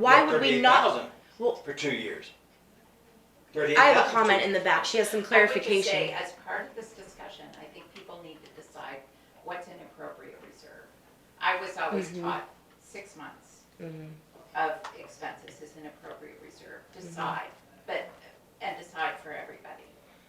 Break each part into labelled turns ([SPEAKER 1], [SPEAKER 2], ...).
[SPEAKER 1] Why would we not?
[SPEAKER 2] 38,000
[SPEAKER 1] Well-
[SPEAKER 2] For two years.
[SPEAKER 1] I have a comment in the back. She has some
[SPEAKER 3] I would
[SPEAKER 1] clarification.
[SPEAKER 3] just say, as part of this discussion, I think people need to decide what's an appropriate reserve. I was always
[SPEAKER 1] Mhm.
[SPEAKER 3] taught six months
[SPEAKER 1] Mhm.
[SPEAKER 3] of expenses is an appropriate reserve,
[SPEAKER 1] Mm-hmm.
[SPEAKER 3] decide, but, and decide for everybody,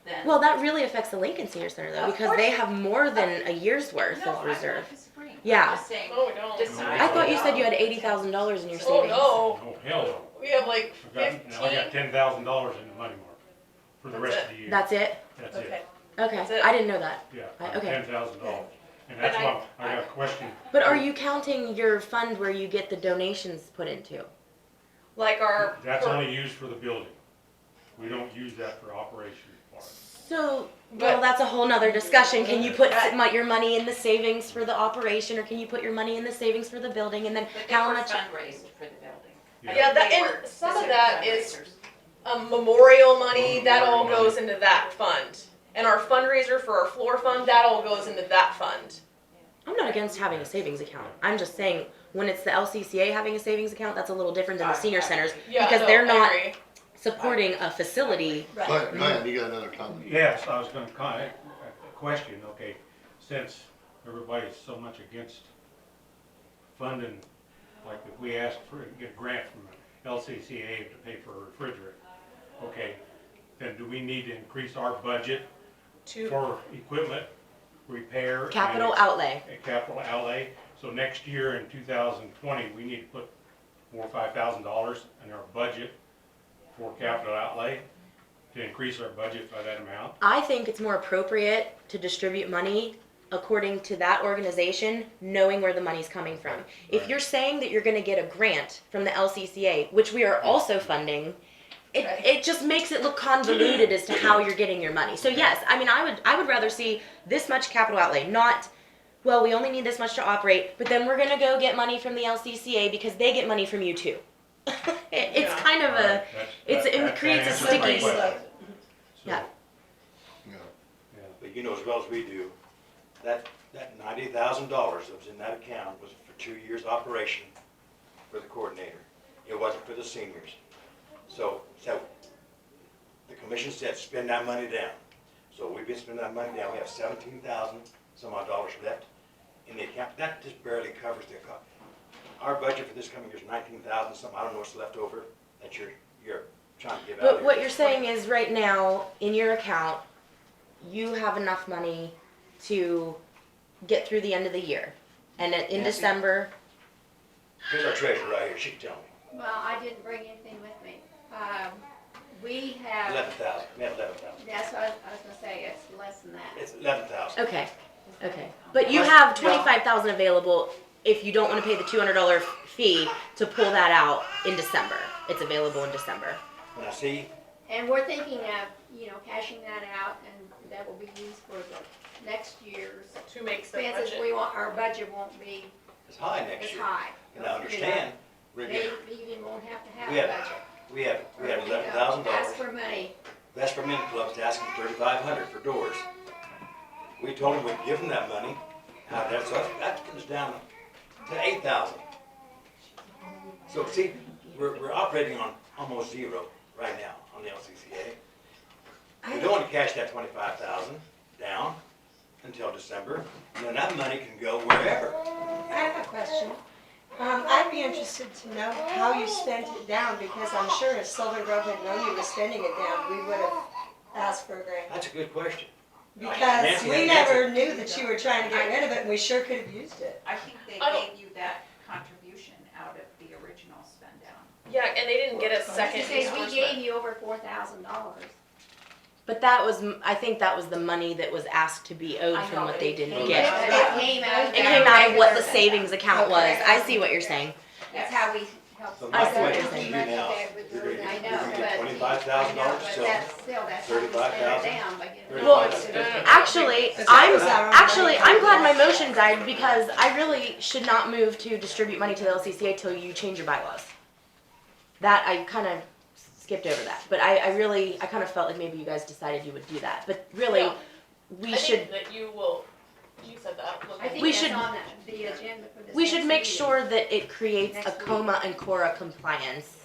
[SPEAKER 3] then.
[SPEAKER 1] Well, that really affects the Lincoln Senior Center though,
[SPEAKER 3] Of
[SPEAKER 1] because
[SPEAKER 3] course.
[SPEAKER 1] they have more than a year's worth
[SPEAKER 3] No,
[SPEAKER 1] of
[SPEAKER 3] I'm not
[SPEAKER 1] reserve.
[SPEAKER 3] disagreeing.
[SPEAKER 1] Yeah.
[SPEAKER 3] I'm just saying,
[SPEAKER 4] No, we don't.
[SPEAKER 3] decide.
[SPEAKER 1] I thought you said you had eighty thousand dollars in your
[SPEAKER 4] Oh,
[SPEAKER 1] savings.
[SPEAKER 4] no,
[SPEAKER 5] Oh, hell no.
[SPEAKER 4] we have like
[SPEAKER 5] I got, now I got
[SPEAKER 4] fifteen.
[SPEAKER 5] ten thousand dollars in the money market for the
[SPEAKER 4] That's
[SPEAKER 5] rest of the year.
[SPEAKER 1] That's it?
[SPEAKER 5] That's
[SPEAKER 4] Okay,
[SPEAKER 5] it,
[SPEAKER 1] Okay,
[SPEAKER 4] That's it.
[SPEAKER 1] I didn't know that.
[SPEAKER 5] yeah,
[SPEAKER 1] I- okay.
[SPEAKER 5] ten thousand dollars. And
[SPEAKER 3] But
[SPEAKER 5] that's
[SPEAKER 3] I-
[SPEAKER 5] why I got a question.
[SPEAKER 1] But are you counting your fund where you get the donations put into?
[SPEAKER 4] like our.
[SPEAKER 5] That's only used for the building. We don't use that for operation part.
[SPEAKER 1] So, well, that's a whole nother discussion. Can you put
[SPEAKER 3] Uh,
[SPEAKER 1] s- mo- your money in the savings for the operation, or can you put your money in the savings for the building, and then
[SPEAKER 3] But they
[SPEAKER 1] how
[SPEAKER 3] were
[SPEAKER 1] much?
[SPEAKER 3] fundraised for the building.
[SPEAKER 4] Yeah, that,
[SPEAKER 3] They were
[SPEAKER 4] and some of
[SPEAKER 3] specific
[SPEAKER 4] that is
[SPEAKER 3] fundraisers.
[SPEAKER 4] um, memorial money, that all goes into that fund. And our fundraiser for our floor fund, that all goes into that fund.
[SPEAKER 1] I'm not against having a savings account. I'm just saying, when it's the LCCA having a savings account, that's a little different than the
[SPEAKER 3] I- I
[SPEAKER 1] senior centers
[SPEAKER 3] agree.
[SPEAKER 4] Yeah,
[SPEAKER 1] Because
[SPEAKER 4] no,
[SPEAKER 1] they're
[SPEAKER 4] I
[SPEAKER 1] not-
[SPEAKER 4] agree.
[SPEAKER 1] supporting a facility.
[SPEAKER 6] Glenn, Glenn, you got another comment?
[SPEAKER 5] Yes, I was gonna kind a question, okay, since everybody's so much against funding, like if we ask for, get a grant from LCCA to pay for a refrigerator, okay, then do we need to increase our budget
[SPEAKER 4] To,
[SPEAKER 5] for equipment, repair? and
[SPEAKER 1] Capital
[SPEAKER 5] ex-
[SPEAKER 1] outlay.
[SPEAKER 5] and Capital outlay, so next year in two thousand twenty, we need to put more five thousand dollars in our budget for capital outlay to increase our budget by that amount.
[SPEAKER 1] I think it's more appropriate to distribute money according to that organization, knowing where the money's coming from. If
[SPEAKER 5] Right.
[SPEAKER 1] you're saying that you're gonna get a grant from the LCCA, which we are also funding, it,
[SPEAKER 4] Right.
[SPEAKER 1] it just makes it look convoluted as to how you're getting your money. So yes, I mean, I would, I would rather see this much capital outlay, not, well, we only need this much to operate, but then we're gonna go get money from the LCCA because they get money from you too. It- It's
[SPEAKER 4] Yeah.
[SPEAKER 1] kind of a,
[SPEAKER 5] That's-
[SPEAKER 1] it's-
[SPEAKER 5] that-
[SPEAKER 1] it
[SPEAKER 5] that- that
[SPEAKER 1] creates a
[SPEAKER 5] answers my
[SPEAKER 1] sticky-
[SPEAKER 5] question. So,
[SPEAKER 1] Yeah.
[SPEAKER 6] Yeah.
[SPEAKER 5] yeah.
[SPEAKER 2] But you know as well as we do, that, that ninety thousand dollars that was in that account was for two years' operation for the coordinator. It wasn't for the seniors. So, so, the commission said, spend that money down. So we've been spending that money down, we have seventeen thousand some odd dollars left in the account, that just barely covers the cost. Our budget for this coming year is nineteen thousand something, I don't know what's left over, that you're, you're trying to give out.
[SPEAKER 1] But
[SPEAKER 2] there.
[SPEAKER 1] what you're saying is right now, in your account, you have enough money to get through the end of the year. And in- in
[SPEAKER 2] Nancy?
[SPEAKER 1] December,
[SPEAKER 2] Here's our treasurer right here, she can tell me.
[SPEAKER 7] Well, I didn't bring anything with me. Um, we
[SPEAKER 2] Eleven
[SPEAKER 7] have,
[SPEAKER 2] thousand, we have eleven thousand.
[SPEAKER 7] that's what I was I was gonna say, it's less than that.
[SPEAKER 2] It's eleven thousand.
[SPEAKER 1] okay, okay. But you
[SPEAKER 2] Plus-
[SPEAKER 1] have
[SPEAKER 2] yeah.
[SPEAKER 1] twenty-five thousand available if you don't wanna pay the two hundred dollar fee to pull that out in December. It's available in December.
[SPEAKER 2] When I see,
[SPEAKER 7] And we're thinking of, you know, cashing that out and that will be used for the next year's
[SPEAKER 4] to make the
[SPEAKER 7] expenses.
[SPEAKER 4] budget.
[SPEAKER 7] We want, our budget won't be
[SPEAKER 2] it's high
[SPEAKER 7] as
[SPEAKER 2] next year,
[SPEAKER 7] high.
[SPEAKER 2] and I understand, we're
[SPEAKER 7] They
[SPEAKER 2] getting-
[SPEAKER 7] even won't have to
[SPEAKER 2] We
[SPEAKER 7] have a
[SPEAKER 2] have-
[SPEAKER 7] budget.
[SPEAKER 2] we have, we have
[SPEAKER 7] You know,
[SPEAKER 2] eleven thousand
[SPEAKER 7] Ask
[SPEAKER 2] dollars.
[SPEAKER 7] for money.
[SPEAKER 2] That's for men clubs, asking thirty-five hundred for doors. We told them we'd give them that money, now that's, that comes down to eight thousand. So see, we're, we're operating on almost zero right now on the LCCA. We don't want to cash that twenty-five thousand down until December, and then that money can go wherever.
[SPEAKER 8] I have a question. Um, I'd be interested to know how you spent it down, because I'm sure if Silver Grove had known you were spending it down, we would have asked for a grant.
[SPEAKER 2] That's a good question.
[SPEAKER 8] Because
[SPEAKER 2] Nancy,
[SPEAKER 8] we
[SPEAKER 2] Nancy.
[SPEAKER 8] never knew that you were trying to get rid of it, and we sure could have used it.
[SPEAKER 3] I think they
[SPEAKER 4] I don't-
[SPEAKER 3] gave you that contribution out of the original spend down.
[SPEAKER 4] Yeah, and they didn't get a
[SPEAKER 7] She
[SPEAKER 4] second
[SPEAKER 7] says, we gave
[SPEAKER 4] reimbursement.
[SPEAKER 7] you over four thousand dollars.
[SPEAKER 1] But that was, m- I think that was the money that was asked to be owed
[SPEAKER 3] I
[SPEAKER 1] from
[SPEAKER 3] know,
[SPEAKER 1] what
[SPEAKER 3] but
[SPEAKER 1] they
[SPEAKER 3] it
[SPEAKER 1] didn't
[SPEAKER 3] came
[SPEAKER 1] get.
[SPEAKER 3] out.
[SPEAKER 7] It came out of
[SPEAKER 1] It came out of what the
[SPEAKER 7] that.
[SPEAKER 1] savings account was.
[SPEAKER 7] Okay.
[SPEAKER 1] I see what you're saying.
[SPEAKER 7] That's how we help.
[SPEAKER 2] So
[SPEAKER 1] my
[SPEAKER 2] my
[SPEAKER 1] I see what
[SPEAKER 2] question
[SPEAKER 1] you're
[SPEAKER 2] to you
[SPEAKER 1] saying.
[SPEAKER 2] now, you're gonna,
[SPEAKER 7] I
[SPEAKER 2] you're
[SPEAKER 7] know,
[SPEAKER 2] gonna
[SPEAKER 7] but.
[SPEAKER 2] get twenty-five thousand
[SPEAKER 7] I know,
[SPEAKER 2] dollars
[SPEAKER 7] but
[SPEAKER 2] still.
[SPEAKER 7] that's Still, that's how we spend it
[SPEAKER 2] 35,000.
[SPEAKER 7] down by getting. rid of
[SPEAKER 1] Well,
[SPEAKER 7] it.
[SPEAKER 1] Actually,
[SPEAKER 8] Because that
[SPEAKER 1] I'm
[SPEAKER 8] was our own
[SPEAKER 1] actually
[SPEAKER 8] money.
[SPEAKER 1] I'm glad my motion died because I really should not move to distribute money to the LCCA till you change your bylaws. That I kind of skipped over that, but I, I really I kind of felt like maybe you guys decided you would do that, but really
[SPEAKER 4] No.
[SPEAKER 1] we
[SPEAKER 4] I
[SPEAKER 1] should
[SPEAKER 4] think that you will you said that. wasn't
[SPEAKER 7] I
[SPEAKER 4] it?
[SPEAKER 1] uh,
[SPEAKER 7] think
[SPEAKER 1] We
[SPEAKER 7] that's
[SPEAKER 1] should-
[SPEAKER 7] on the- the agenda for this
[SPEAKER 1] We should
[SPEAKER 7] next
[SPEAKER 1] make
[SPEAKER 7] meeting.
[SPEAKER 1] sure that it creates a
[SPEAKER 7] Next meeting.
[SPEAKER 1] coma and Cora compliance